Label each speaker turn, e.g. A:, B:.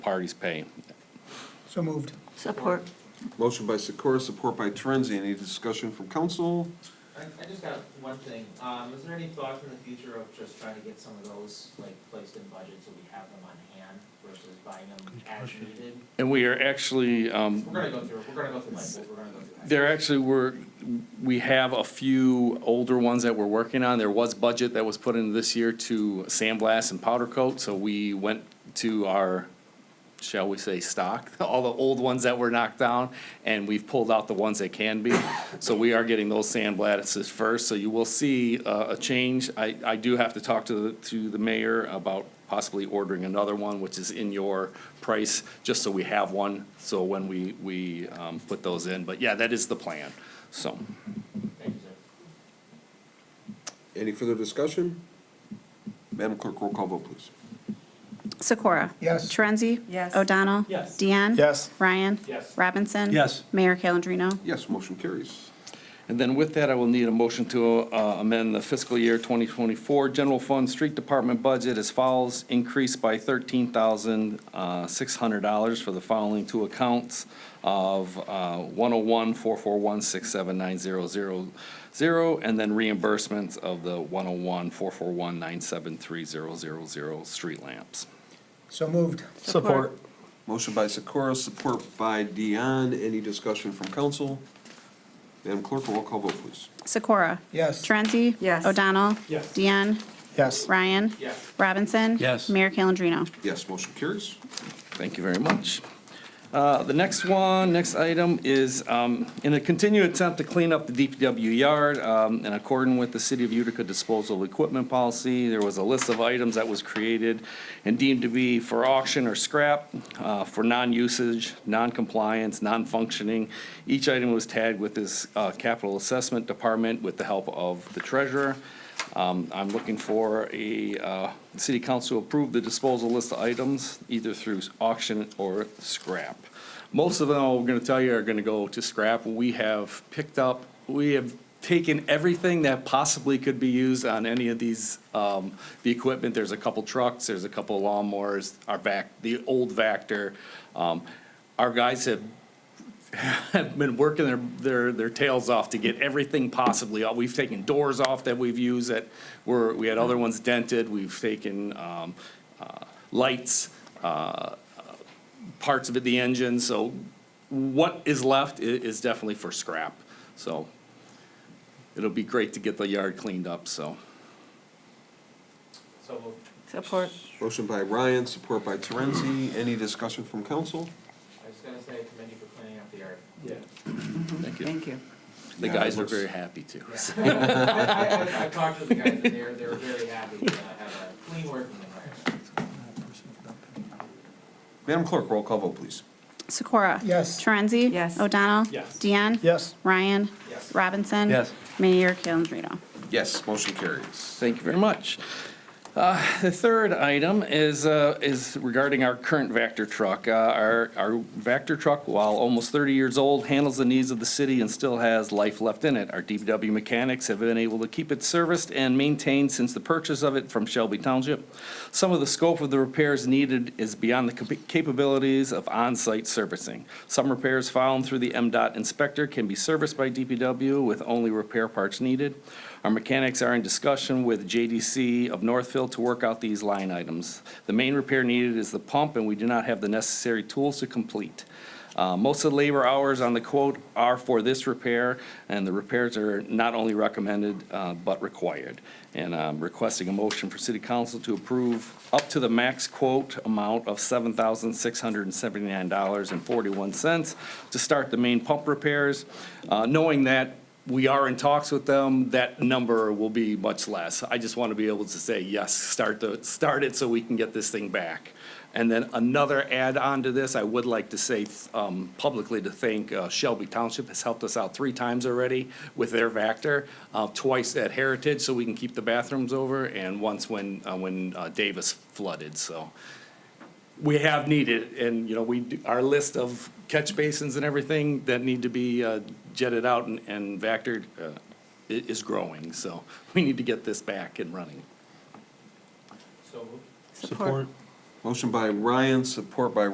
A: parties pay.
B: So moved.
C: Support.
D: Motion by Sikora, support by Torenzi. Any discussion from council?
E: I, I just got one thing, um, is there any thoughts in the future of just trying to get some of those, like, placed in budget so we have them on hand versus buying them as needed?
A: And we are actually, um,
E: We're gonna go through, we're gonna go through, like, we're gonna go through. that.
A: There actually were, we have a few older ones that we're working on. There was budget that was put in this year to sandblast and powder coat, so we went to our, shall we say, stock, all the old ones that were knocked down, and we've pulled out the ones that can be. So we are getting those sandblasts first, so you will see uh, a change. I, I do have to talk to, the to the mayor about possibly ordering another one, which is in your price, just so we have one, so when we, we um, put those in. But yeah, that is the plan, so.
E: Thank you, sir.
D: Any further discussion? Madam Clerk, roll call vote, please.
F: Sikora?
B: Yes.
F: Torenzi?
C: Yes.
F: O'Donnell?
E: Yes.
F: Deanne?
B: Yes.
F: Ryan?
E: Yes.
F: Robinson?
B: Yes.
F: Mayor Calendino?
D: Yes, motion carries.
A: And then with that, I will need a motion to uh, amend the fiscal year 2024 general fund street department budget as follows. Increase by uh, $13,600 for the following two accounts of uh, 101 441 and then reimbursements of the 101 441 street lamps.
B: So moved.
F: Support.
D: Motion by Sikora, support by Dion. Any discussion from council? Madam Clerk, roll call vote, please.
F: Sikora?
B: Yes.
F: Torenzi?
C: Yes.
F: O'Donnell?
E: Yes.
F: Deanne?
B: Yes.
F: Ryan?
E: Yes.
F: Robinson?
B: Yes.
F: Mayor Calendino?
D: Yes, motion carries.
A: Thank you very much. Uh, The next one, next item is, um, in a continued attempt to clean up the DPW yard, um, in accordance with the City of Utica disposal of equipment policy, there was a list of items that was created and deemed to be for auction or scrap, uh, for non-usage, non-compliance, non-functioning. Each item was tagged with this uh, capital assessment department with the help of the treasurer. Um, I'm looking for a, uh, city council approve the disposal list of items, either through auction or scrap. Most of them, I'm gonna tell you, are gonna go to scrap. We have picked up, we have taken everything that possibly could be used on any of these, um, the equipment. There's a couple trucks, there's a couple lawnmowers, our vac, the old Vector. Um, our guys have have been working their, their, their tails off to get everything possibly, out. we've taken doors off that we've used that were, we had other ones dented, we've taken, um, uh, lights, uh, parts of it, the engine, so what is left i- is definitely for scrap, so it'll be great to get the yard cleaned up, so.
E: So moved.
C: Support.
D: Motion by Ryan, support by Torenzi. Any discussion from council?
E: I was gonna say, commend you for cleaning up the yard.
A: Thank you.
C: Thank you.
A: The
D: Yeah, it
A: guys were
D: looks-
A: very happy too.
E: I, I, I talked to the guys, and they're, they're very happy to have a clean working environment.
D: Madam Clerk, roll call vote, please.
F: Sikora?
B: Yes.
F: Torenzi?
C: Yes.
F: O'Donnell?
E: Yes.
F: Deanne?
B: Yes.
F: Ryan?
E: Yes.
F: Robinson?
B: Yes.
F: Mayor Calendino?
D: Yes, motion carries.
A: Thank you very much. Uh, The third item is, uh, is regarding our current Vector truck. Uh, Our, our Vector truck, while almost 30 years old, handles the needs of the city and still has life left in it. Our DPW mechanics have been able to keep it serviced and maintained since the purchase of it from Shelby Township. Some of the scope of the repairs needed is beyond the cap- capabilities of on-site servicing. Some repairs found through the MDOT inspector can be serviced by DPW with only repair parts needed. Our mechanics are in discussion with JDC of Northfield to work out these line items. The main repair needed is the pump, and we do not have the necessary tools to complete. Uh, Most of the labor hours on the quote are for this repair, and the repairs are not only recommended, uh, but required. And I'm requesting a motion for city council to approve up to the max quote amount of $7,679.41 to start the main pump repairs, Uh, knowing that we are in talks with them, that number will be much less. I just want to be able to say, yes, start the, start it so we can get this thing back. And then another add-on to this, I would like to say um, publicly to thank uh, Shelby Township has helped us out three times already with their Vector, uh, twice at Heritage so we can keep the bathrooms over, and once when, uh, when uh, Davis flooded, so we have needed, and, you know, we, do- our list of catch basins and everything that need to be uh, jetted out and, and vectored uh, i- is growing, so we need to get this back and running.
E: So moved.
C: Support.
D: Motion by Ryan, support by